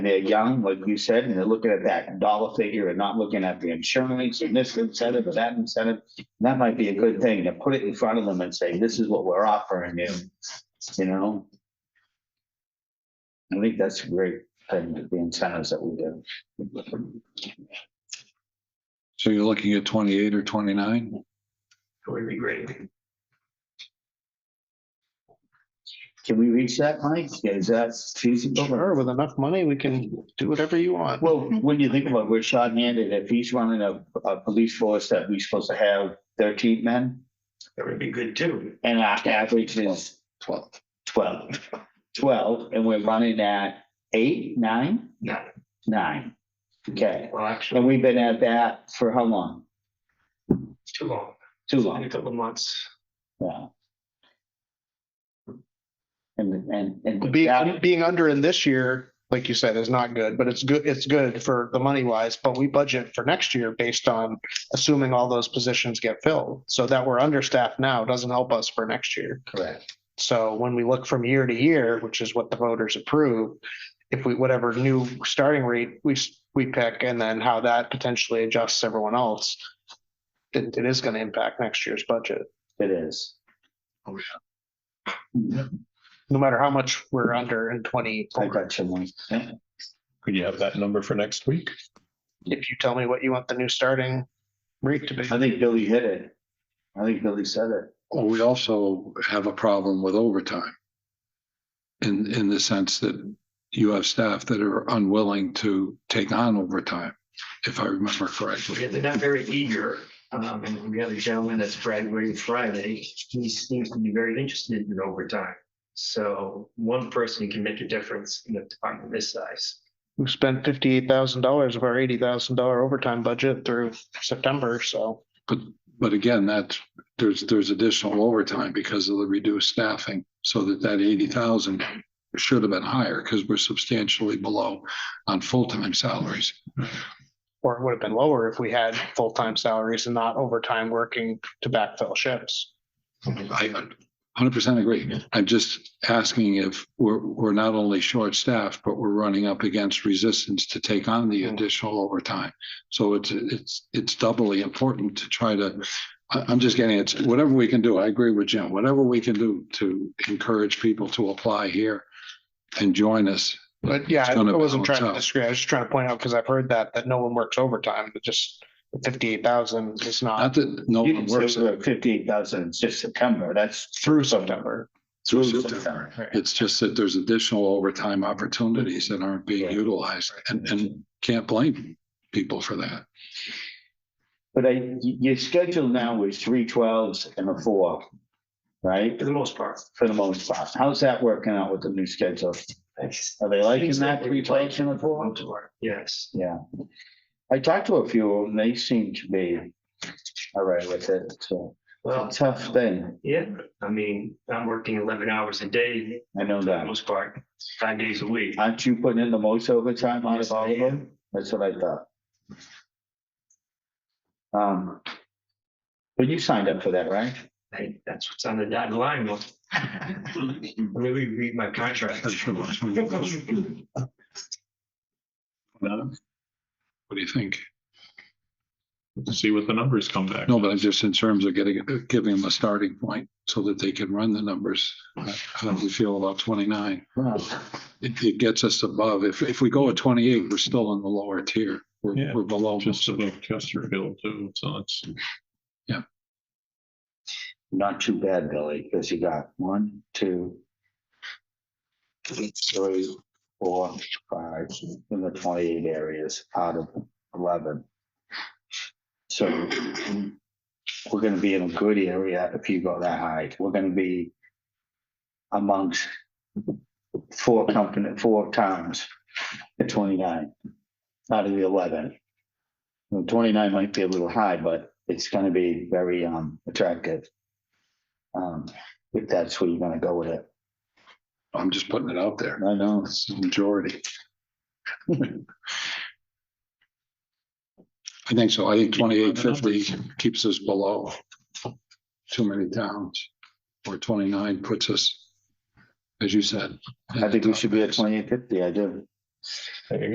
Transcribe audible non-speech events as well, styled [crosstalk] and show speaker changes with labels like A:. A: And they're young, like you said, and they're looking at that dollar figure and not looking at the insurance and this incentive or that incentive. That might be a good thing to put it in front of them and say, this is what we're offering you, you know? I think that's a great thing, the incentives that we do.
B: So you're looking at twenty-eight or twenty-nine?
A: Would be great. Can we reach that, Mike? Is that feasible?
C: Sure, with enough money, we can do whatever you want.
A: Well, when you think about, it, we're short-handed. If he's running a, a police force that we're supposed to have thirteen men,
D: That would be good too.
A: and our average is
C: Twelve.
A: twelve. Twelve, and we're running at eight, nine,
D: No,
A: nine. Okay,
D: well, actually,
A: and we've been at that for how long?
D: it's too long,
A: Too
D: in a
A: long,
D: couple of months.
A: yeah. And, and, and.
C: Being, being under in this year, like you said, is not good, but it's good, it's good for the money wise, but we budget for next year based on assuming all those positions get filled. So that we're understaffed now doesn't help us for next year.
A: Correct.
C: So when we look from year to year, which is what the voters approve, if we, whatever new starting rate we, s- we pick and then how that potentially adjusts everyone else, it, it is going to impact next year's budget.
A: It is.
B: Oh,
A: yeah.
C: no matter how much we're under in twenty,
A: I got you, Mike. Yeah.
E: Could you have that number for next week?
C: if you tell me what you want the new starting rate to be.
A: I think Billy hit it. I think Billy said it.
B: Well, we also have a problem with overtime. In, in the sense that you have staff that are unwilling to take on overtime, if I remember correctly.
D: Yeah, They're not very eager. Um, and the other gentleman that's graduating Friday, he seems to be very interested in overtime. So one person can make a difference in a department this size.
C: We spent fifty-eight thousand dollars of our eighty thousand dollar overtime budget through September, so.
B: But, but again, that's, there's, there's additional overtime because of the reduced staffing. So that that eighty thousand should have been higher because we're substantially below on full-time salaries.
C: Or it would have been lower if we had full-time salaries and not overtime working to backfill shifts.
B: I hundred percent agree. I'm just asking if we're, we're not only short-staffed, but we're running up against resistance to take on the
A: Mm.
C: Hmm.
B: additional overtime. So it's, it's, it's doubly important to try to, I, I'm just getting it, whatever we can do, I agree with Jim, whatever we can do to encourage people to apply here and join us.
C: But yeah,
B: It's
C: I
B: gonna
C: wasn't
B: balance
C: trying to
B: out.
C: disagree. I was just trying to point out, because I've heard that, that no one works overtime, but just fifty-eight thousand is
B: Not
C: not
B: that no
A: You
B: one
A: didn't say
B: works
A: we were at fifty-eight thousand, it's just September, that's.
C: through September.
B: through
A: through
B: September.
A: September.
B: It's just that there's additional overtime opportunities that aren't being
A: Right.
B: utilized and, and can't blame people for that.
A: But I, y- your schedule now is three twelves and a four, right?
D: For the most part.
A: For the most part. How's that working out with the new schedule? Are they liking that three twelves and a four?
D: Most part, Yes.
A: Yeah. I talked to a few of them, they seem to be all right with it, so.
D: Well,
A: Tough thing,
D: yeah, I mean, I'm working eleven hours a day
A: I know
D: for the
A: that.
D: most part, five days a week.
A: Aren't you putting in the most overtime out of
D: Yes, I
A: all of them?
D: am.
A: That's what I thought. Um. But you signed up for that, right?
D: Hey, that's what's on the dotted line. Well, [laughs] Let me read my contract. [laughs]
B: That's the last one. Madam? What do you think?
E: See what the numbers come back.
B: No, but I'm just in terms of getting, giving them a starting point so that they can run the numbers. uh, How we feel about twenty-nine.
A: Wow.
B: It, it gets us above. If, if we go at twenty-eight, we're still in the lower tier. We're,
E: Yeah.
B: we're below.
E: Just above Chesterfield too, so it's.
A: Not too bad, Billy, because you got one, two, three, four, five, in the twenty-eight areas out of eleven. So we're gonna be in a good area if you go that high. We're gonna be amongst four company, four times the twenty-nine out of the eleven. Well, Twenty-nine might be a little high, but it's gonna be very, um, attractive. Um, if that's where you're gonna go with it.
B: I'm just putting it out there.
A: I know.
B: It's the [laughs] majority. I think so. I think twenty-eight fifty keeps us below too many towns. Or twenty-nine puts us, as you said.
A: I think we should be at twenty-eight fifty, I do.
E: There you go.